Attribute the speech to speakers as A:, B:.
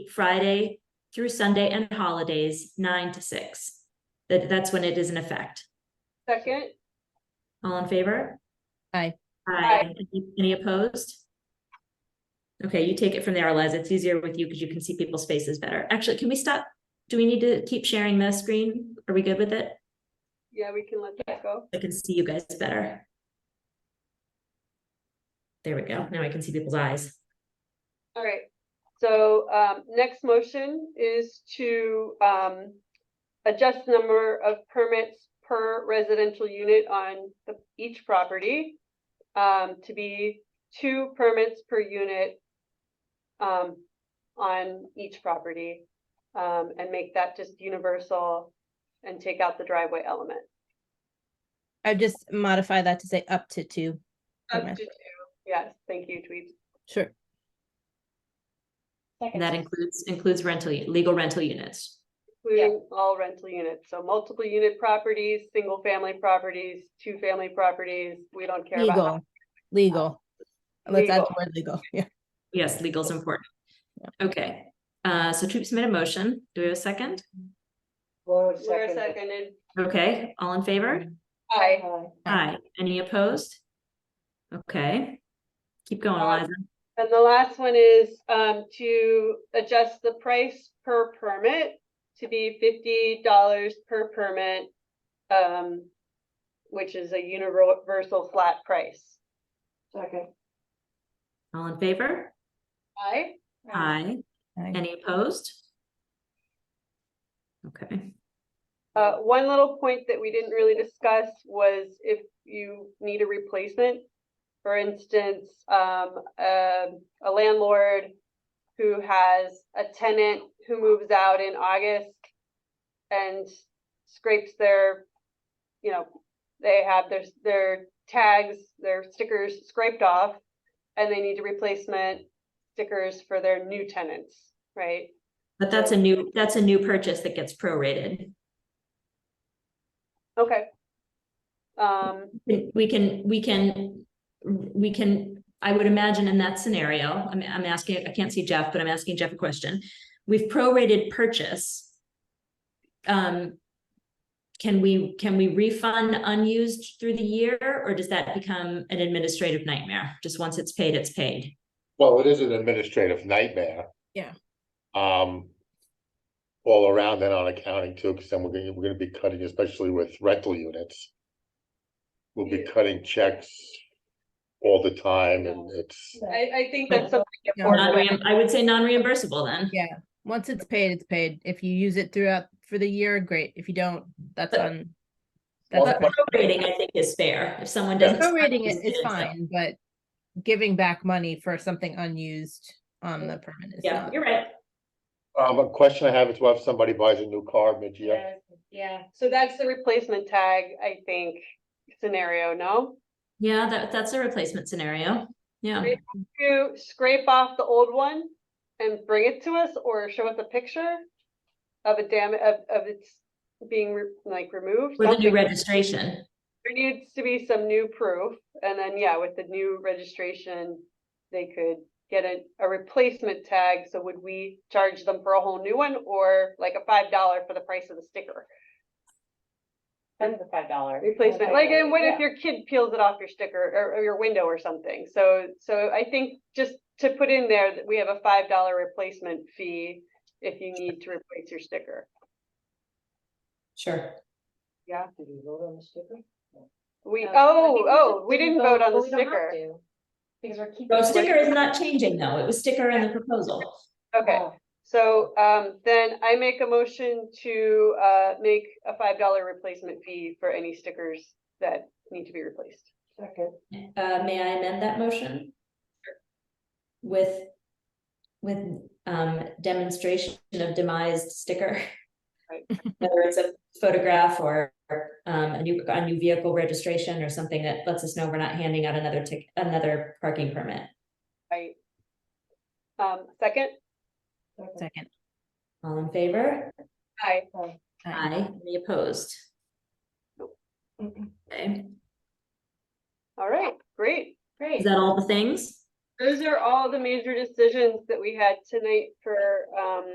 A: Friday through Sunday and holidays, nine to six. That, that's when it is in effect.
B: Second,
A: All in favor?
C: Aye.
A: Aye. Any- Any opposed? Okay, you take it from there, Les. It's easier with you because you can see people's faces better. Actually, can we stop? Do we need to keep sharing the screen? Are we good with it?
B: yeah, we can let that go.
A: I can see you guys better. There we go. Now I can see people's eyes.
B: All right. So um, next motion is to um, adjust the number of permits per residential unit on the- each property um, to be two permits per unit um, on each property um, and make that just universal and take out the driveway element.
C: I'd just modify that to say up to two.
B: Up to
C: permits.
B: two. Yes, thank you, Tweed.
C: Sure.
A: And that includes, includes rental, u- legal rental units.
B: Including all rental units, so multiple unit properties, single family properties, two family properties, we don't care about.
C: Legal, legal. Let's add the
B: Legal.
C: word legal. Yeah.
A: Yes, legal is important. Okay, uh, so troops made a motion. Do we have a second?
D: Laura
B: Laura
D: seconded.
B: seconded, Oh.
A: Okay, all in favor?
B: aye,
A: Aye. Any opposed? Okay. Keep going,
B: Uh,
A: Eliza.
B: and the last one is, um, to adjust the price per permit to be fifty dollars per permit. Um, which is a universal flat price,
D: Second.
A: All in favor?
B: aye?
A: Aye.
C: Aye.
A: Any opposed? Okay,
B: Uh, one little point that we didn't really discuss was if you need a replacement. For instance, um, um, a landlord who has a tenant who moves out in August and scrapes their, you know, they have their, their tags, their stickers scraped off and they need a replacement stickers for their new tenants, right?
A: but that's a new, that's a new purchase that gets prorated.
B: Okay. Um,
A: We can, we can, we can, I would imagine in that scenario, I'm, I'm asking, I can't see Jeff, but I'm asking Jeff a question. We've prorated purchase. Um, can we, can we refund unused through the year, or does that become an administrative nightmare? Just once it's paid, it's paid.
E: Well, it is an administrative nightmare.
C: Yeah.
E: Um. All around and on accounting too, because then we're gonna, we're gonna be cutting, especially with rental units. We'll be
B: Yeah.
E: cutting checks all the time and it's,
B: I, I think that's something
C: Yeah.
B: important.
A: Non-reim- I would say non-reimbursable then.
C: Yeah. Once it's paid, it's paid. If you use it throughout for the year, great. If you don't, that's
A: But-
C: on. That's
E: Well,
C: on.
E: but-
A: Rating, I think, is fair. If someone
E: Yeah.
A: doesn't.
C: Prorating it is
A: so-
C: fine, but giving back money for something unused on the permit is
A: Yeah,
C: not.
A: you're right.
E: um, a question I have is, well, if somebody buys a new car mid-year,
D: Yeah.
B: So that's the replacement tag, I think, scenario, no?
A: Yeah, that, that's a replacement scenario. Yeah.
B: Great. You scrape off the old one and bring it to us or show us a picture of a dam, of, of it's being re- like removed.
A: With a new
B: something.
A: registration.
B: There needs to be some new proof, and then, yeah, with the new registration, they could get a, a replacement tag, so would we charge them for a whole new one, or like a five dollar for the price of the sticker?
D: And the five dollar.
B: Replacement, like, and what if your kid peels it off your sticker or, or your window or something? So, so I think just to put in there that we have a five dollar replacement fee if you need to replace your sticker.
A: Sure.
B: Yeah,
D: Did you vote on the sticker?
B: we,
F: No, I
B: oh,
F: think we
B: oh,
F: just
B: we
F: didn't
B: didn't vote on
F: but
B: the
F: we don't have
B: sticker.
F: to, Because we're keeping.
A: The sticker is not changing though. It was sticker in the proposal.
B: Okay,
D: Oh,
B: so, um, then I make a motion to, uh, make a five dollar replacement fee for any stickers that need to be replaced.
D: Second.
A: Uh, may I amend that motion? With, with, um, demonstration of demised sticker.
B: Right.
A: Whether it's a photograph or, um, a new, a new vehicle registration or something that lets us know we're not handing out another tick, another parking permit.
B: Right. Um, second,
C: Second.
A: All in favor?
B: aye.
C: Aye.
A: Aye. Any opposed? Okay,
B: All right, great.
F: Great.
A: is that all the things?
B: Those are all the major decisions that we had tonight for, um,